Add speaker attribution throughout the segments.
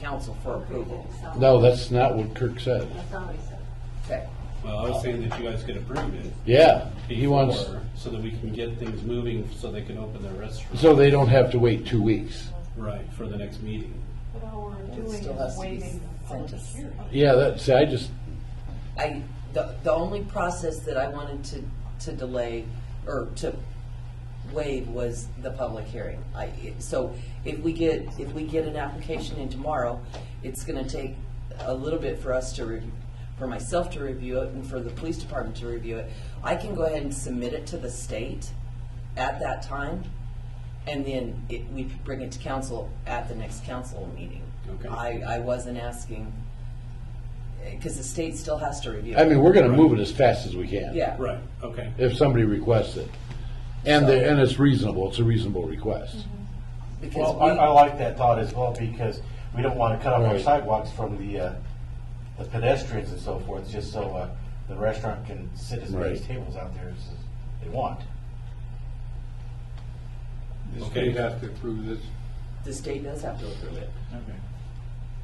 Speaker 1: council for approval.
Speaker 2: No, that's not what Kirk said.
Speaker 3: That's all he said.
Speaker 1: Okay.
Speaker 4: Well, I was saying that you guys could approve it
Speaker 2: Yeah, he wants,
Speaker 4: before, so that we can get things moving, so they can open their restaurant.
Speaker 2: so they don't have to wait two weeks.
Speaker 4: Right, for the next meeting.
Speaker 5: But all we're doing
Speaker 1: still has
Speaker 5: is
Speaker 1: to be
Speaker 5: waiving the
Speaker 1: sent
Speaker 5: public
Speaker 1: us.
Speaker 5: hearing.
Speaker 2: Yeah, that, see, I just,
Speaker 1: I, the, the only process that I wanted to, to delay or to waive was the public hearing. I, it- so if we get, if we get an application in tomorrow, it's gonna take a little bit for us to review, for myself to review it and for the police department to review it. I can go ahead and submit it to the state at that time and then it, we bring it to council at the next council meeting.
Speaker 4: Okay.
Speaker 1: I, I wasn't asking, because the state still has to review.
Speaker 2: I
Speaker 1: it.
Speaker 2: mean, we're gonna move it as fast as we can.
Speaker 1: Yeah.
Speaker 4: Right, okay.
Speaker 2: If somebody requests it. And, the- and it's reasonable, it's a reasonable request.
Speaker 1: Because
Speaker 6: Well,
Speaker 1: we,
Speaker 6: I, I like that thought as well, because we don't want to cut off our
Speaker 2: Right.
Speaker 6: sidewalks from the, uh, the pedestrians and so forth, just so, uh, the restaurant can sit as many
Speaker 2: Right.
Speaker 6: tables out there as they want.
Speaker 7: The
Speaker 4: Okay.
Speaker 7: state has to approve this.
Speaker 1: the state does have to approve it.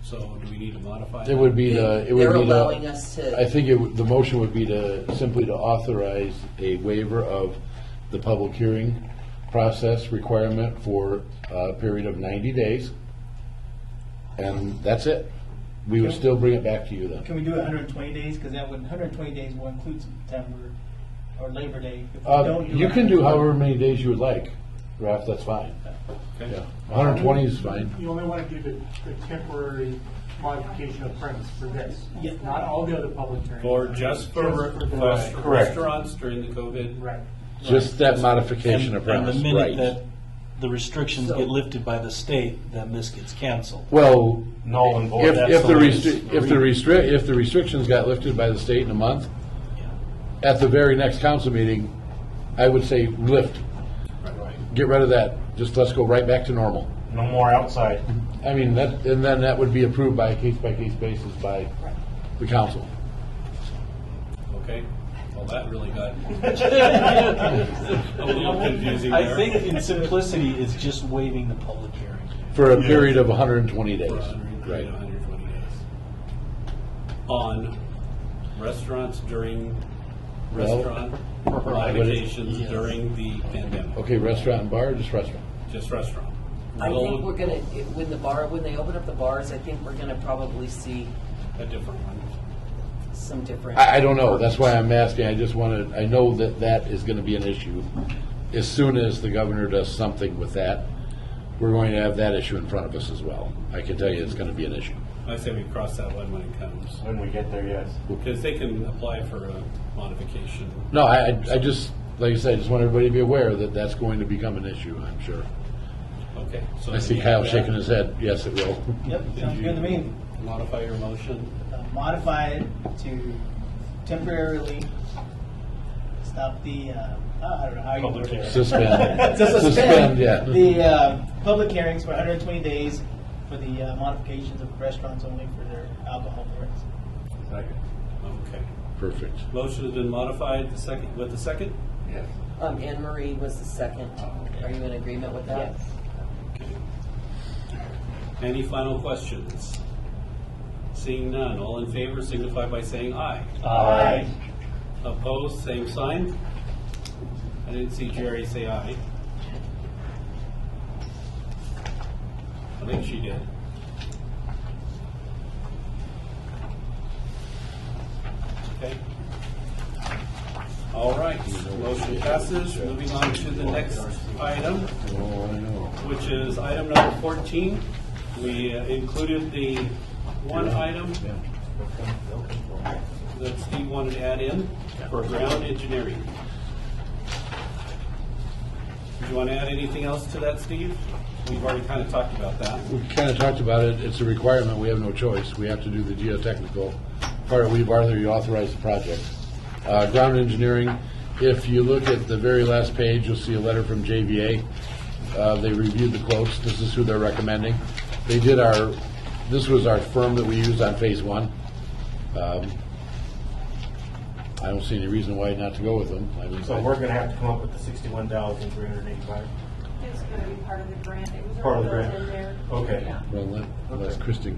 Speaker 4: So do we need to modify?
Speaker 2: It would be the, it would be the.
Speaker 1: They're allowing us to.
Speaker 2: I think it, would- the motion would be to, simply to authorize a waiver of the public hearing process requirement for a period of 90 days, and that's it. We would still bring it back to you then.
Speaker 8: Can we do it 120 days? Because that would, 120 days will include September or Labor Day. If we
Speaker 2: Uh,
Speaker 8: don't do
Speaker 2: You
Speaker 8: it-
Speaker 2: can do however many days you would like, Ralph, that's fine. Yeah, 120 is fine.
Speaker 9: You only want to do the, the temporary modification of premise for this,
Speaker 8: Yeah.
Speaker 9: not all the other public hearings.
Speaker 4: Or just for
Speaker 9: Just for the-
Speaker 4: for
Speaker 6: Correct.
Speaker 4: restaurants during the COVID?
Speaker 9: Right.
Speaker 2: Just that modification of
Speaker 10: And-
Speaker 2: premise,
Speaker 10: And the minute
Speaker 2: right.
Speaker 10: that the restrictions
Speaker 1: So-
Speaker 10: get lifted by the state, then this gets canceled.
Speaker 2: Well,
Speaker 6: Null and void.
Speaker 2: if,
Speaker 10: that's
Speaker 2: if
Speaker 10: the
Speaker 2: the
Speaker 10: way
Speaker 2: restri-
Speaker 10: it's
Speaker 2: if the restrict, if the restrictions got lifted by the state in a month, at the very next council meeting, I would say lift, get rid of that, just let's go right back to normal.
Speaker 6: No more outside.
Speaker 2: I mean, that, and then that would be approved by a case-by-case basis by the council.
Speaker 4: Okay, well, that really got a little confusing there.
Speaker 10: I think in simplicity, it's just waiving the public hearing.
Speaker 2: For a period of hundred and twenty days,
Speaker 4: For 100,
Speaker 2: right?
Speaker 4: 120 days. On restaurants during, restaurant modifications
Speaker 10: Yes.
Speaker 4: during the pandemic,
Speaker 2: Okay, restaurant and bar, just restaurant.
Speaker 4: just restaurant.
Speaker 1: I think
Speaker 4: Will
Speaker 1: we're gonna, when the bar, when they open up the bars, I think we're gonna probably see
Speaker 4: A different one.
Speaker 1: some different.
Speaker 2: I, I don't know, that's why I'm asking, I just wanted, I know that that is gonna be an issue. As soon as the governor does something with that, we're going to have that issue in front of us as well. I can tell you it's gonna be an issue.
Speaker 4: I say we cross that one when it comes,
Speaker 6: When we get there, yes.
Speaker 4: because they can apply for a modification.
Speaker 2: No, I, I- I just, like I said, I just want everybody to be aware that that's going to become an issue, I'm sure.
Speaker 4: Okay. so
Speaker 2: I see
Speaker 4: you
Speaker 2: Kyle
Speaker 4: have
Speaker 2: shaking
Speaker 4: that.
Speaker 2: his head, yes, it will.
Speaker 8: Yep, sounds good to me.
Speaker 4: Modify your motion.
Speaker 8: Uh, Modify it to temporarily stop the, uh, oh, I don't know how you word it.
Speaker 2: Suspend.
Speaker 8: To suspend
Speaker 2: yeah.
Speaker 8: the uh, public hearings for 120 days for the uh, modifications of restaurants only for their alcohol permits.
Speaker 4: Okay.
Speaker 2: Perfect.
Speaker 4: Motion has been modified, the second, with the second?
Speaker 1: Um, Anne Marie was the second.
Speaker 6: Oh,
Speaker 1: Are you in agreement with that?
Speaker 3: Yes.
Speaker 4: Okay. Any final questions? Seeing none, all in favor signify by saying aye.
Speaker 6: Aye.
Speaker 4: Opposed, same sign. I didn't see Jerry say aye. I think she did. Okay. All right, motion passes. Moving on to the next item
Speaker 2: Oh, I know.
Speaker 4: which is item number 14. We uh, included the one item that Steve wanted to add in for ground engineering. Do you want to add anything else to that, Steve? We've already kind of talked about that.
Speaker 2: We kind of talked about it, it's a requirement, we have no choice, we have to do the geotechnical part, we've already authorized the project. Uh, ground engineering, if you look at the very last page, you'll see a letter from JVA. Uh, they reviewed the quotes, this is who they're recommending. They did our, this was our firm that we used on phase one. Um, I don't see any reason why not to go with them. I mean,
Speaker 6: So we're gonna have to come up with the sixty-one thousand, three hundred and eighty-five.
Speaker 5: It's gonna be part of the grant. It was
Speaker 6: Part of the
Speaker 5: already
Speaker 6: grant.
Speaker 5: in there.
Speaker 6: Okay.
Speaker 5: Yeah.
Speaker 2: Well, let- let Kristen